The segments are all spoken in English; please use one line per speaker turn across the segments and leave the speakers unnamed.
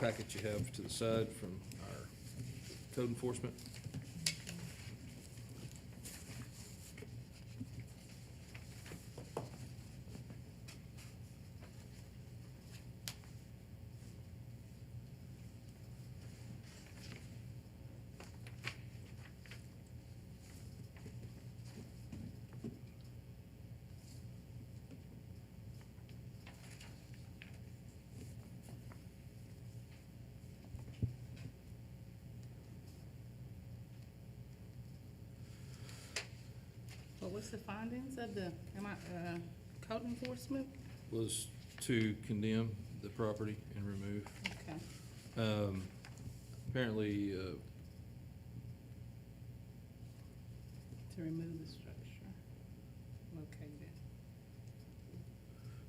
packet you have to the side from our code enforcement.
What was the findings of the, am I, uh, code enforcement?
Was to condemn the property and remove.
Okay,
Um, Apparently, uh,
to remove the structure located.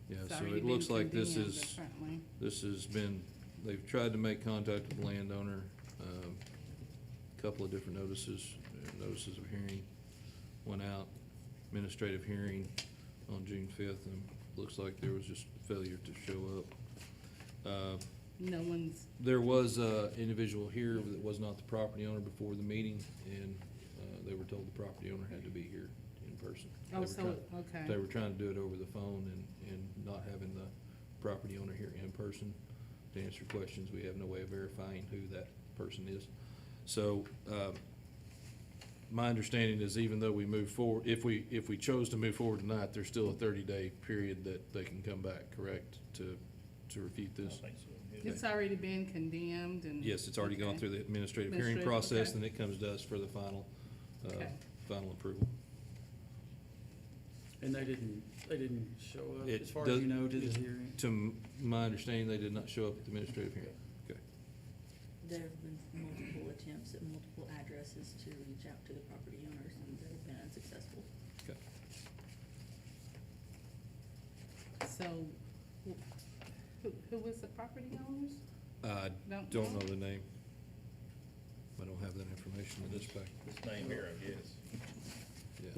yeah,
It's
so
already
it
been
looks like this
condemned,
is,
apparently.
this has been, they've tried to make contact with the landowner, um, couple of different notices, uh, notices of hearing went out, administrative hearing on June fifth, and looks like there was just failure to show up. Uh,
No one's,
There was an individual here that was not the property owner before the meeting, and uh, they were told the property owner had to be here in person. They
oh,
were
so,
trying- They
okay,
were trying to do it over the phone and, and not having the property owner here in person to answer questions. We have no way of verifying who that person is. So um, my understanding is even though we move forward, if we, if we chose to move forward tonight, there's still a 30-day period that they can come back, correct, to, to refute
I
this?
think so. yeah.
it's already been condemned and.
Yes, it's already gone
Okay.
through the administrative hearing
Administrative,
process, and
okay.
it comes to us for the final, uh,
Okay.
final approval.
And they didn't, they didn't show up,
It
as far as
does-
you know, to
it-
the hearing?
To m- my understanding, they did not show up at the administrative hearing. Okay.
There have been multiple attempts at multiple addresses to reach out to the property owners, and they've been unsuccessful.
Okay.
So, wh- who, who was the property owners?
I
Don't
don't
know?
know the name. I don't have that information in this packet.
This name here, I guess.
Yeah.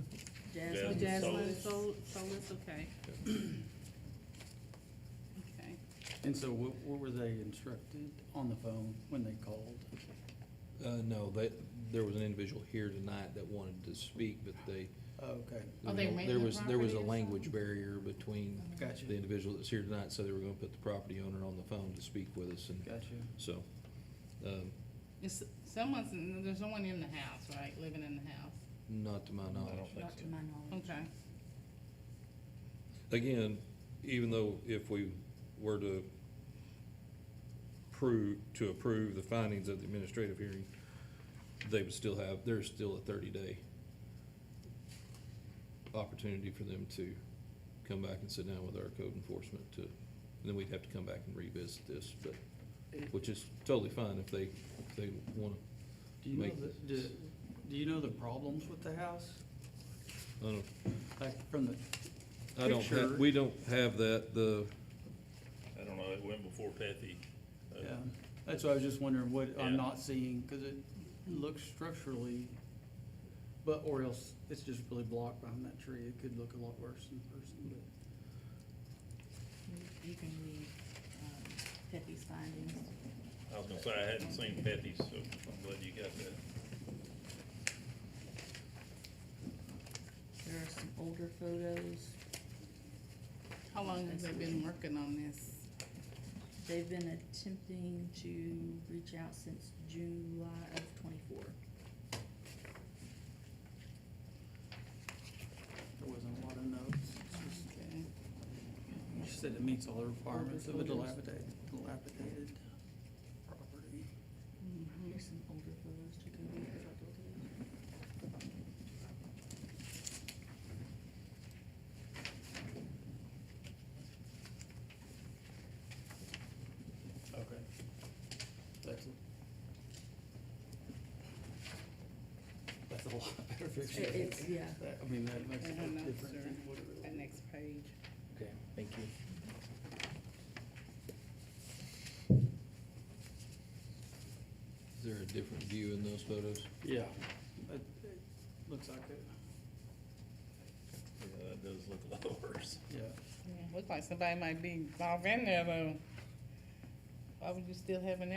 Jasmine
Jasmine
Oh, Jasmine
Solis.
Sol, Solis, okay. Okay,
And so what, what were they instructed on the phone when they called?
Uh, no, they, there was an individual here tonight that wanted to speak, but they,
Oh, Okay,
Are Oh, they renting
there
the
was, there was a
property or something?
language barrier between
gotcha,
the individual that's here tonight, so they were gonna put the property owner on the phone to speak with us, and
gotcha.
so, um,
it's, someone's, in- there's someone in the house, right, living in the house,
not to my
I
knowledge.
don't think
Not to
so.
my knowledge.
okay.
again, even though if we were to prove, to approve the findings of the administrative hearing, they would still have, there's still a thirty-day opportunity for them to come back and sit down with our code enforcement to, and then we'd have to come back and revisit this, but, which is totally fine if they, if they wanna,
Do you know
Make
the, do,
this-
do you know the problems with the house?
I don't,
Like from the,
I don't
Picture.
have, we don't have that, the,
I don't know, it went before Patty. uh,
yeah, that's why I was just wondering what
Yeah.
I'm not seeing, cause it looks structurally, but, or else it's just really blocked behind that tree, it could look a lot worse in person, but.
You can read, um, Pepe's findings.
I was gonna say, I hadn't seen Patty's, so I'm glad you got that.
There are some older photos.
How long have they been working on this?
They've been attempting to reach out since July of twenty-four.
There wasn't a lot of notes. It's just-
Okay.
She said it meets all the requirements of a dilapidated, dilapidated property.
Mhm.
Here's some older photos to go with. if I'd look at it.
Okay. That's, a- that's a lot better picture.
It- it's- yeah.
That- I mean, that makes
I
it
don't know,
look different
sir.
than what it
That
really.
next page.
Okay, thank you.
is there a different view in those photos?
Yeah, it, it looks like it,
Yeah, That does look a lot worse.
yeah.
Yeah, Looks like somebody might be off in there though. why would you still have an